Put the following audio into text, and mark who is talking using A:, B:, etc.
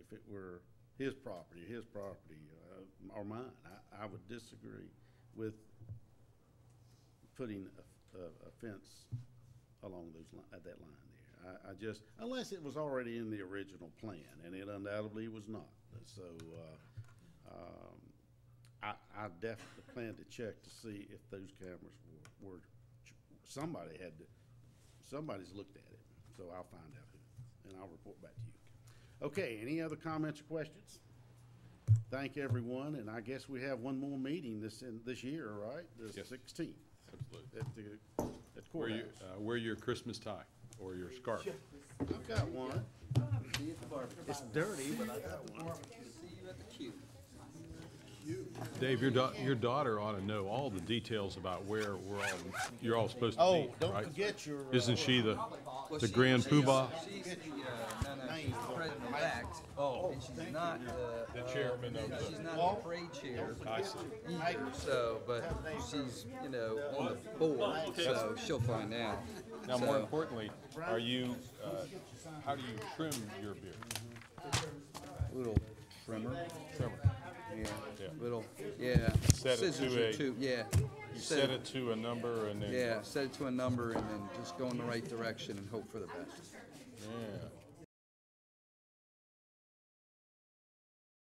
A: if it were his property, his property, uh, or mine. I, I would disagree with putting a, a, a fence along those, li- at that line there. I, I just, unless it was already in the original plan, and it undoubtedly was not. So, uh, um, I, I definitely plan to check to see if those cameras were, were, somebody had, to- somebody's looked at it, so I'll find out who, and I'll report back to you. Okay, any other comments or questions? Thank everyone, and I guess we have one more meeting this, in, this year, right? The
B: Yes.
A: sixteenth
B: Absolutely.
A: at the, at
B: Wear
A: courthouse.
B: your, uh, wear your Christmas tie or your scarf.
A: I've got one. It's dirty, but I got one.
B: Dave, your da- your daughter ought to know all the details about where we're all, you're all supposed to
A: Oh,
B: be,
A: don't
B: right?
A: forget your. uh,
B: Isn't she the, the grand poobah?
C: She's the, uh, no, no, she's the president-elect, and she's not the.
B: The chairman of
C: uh,
B: the-
C: She's not the parade chair
B: I see.
C: either, so, but she's, you know, on the board, so she'll find out.
B: Oh, Now, more
C: So,
B: importantly, are you, uh, how do you trim your beard?
C: Little trimmer,
B: Trimmer.
C: yeah,
B: Yeah.
C: little, yeah.
B: Set it to
C: Scissors are
B: a-
C: too- Yeah.
B: You
C: Set
B: set
C: it-
B: it to a number and then.
C: Yeah, set it to a number and then just go in the right direction and hope for the best.
B: Yeah.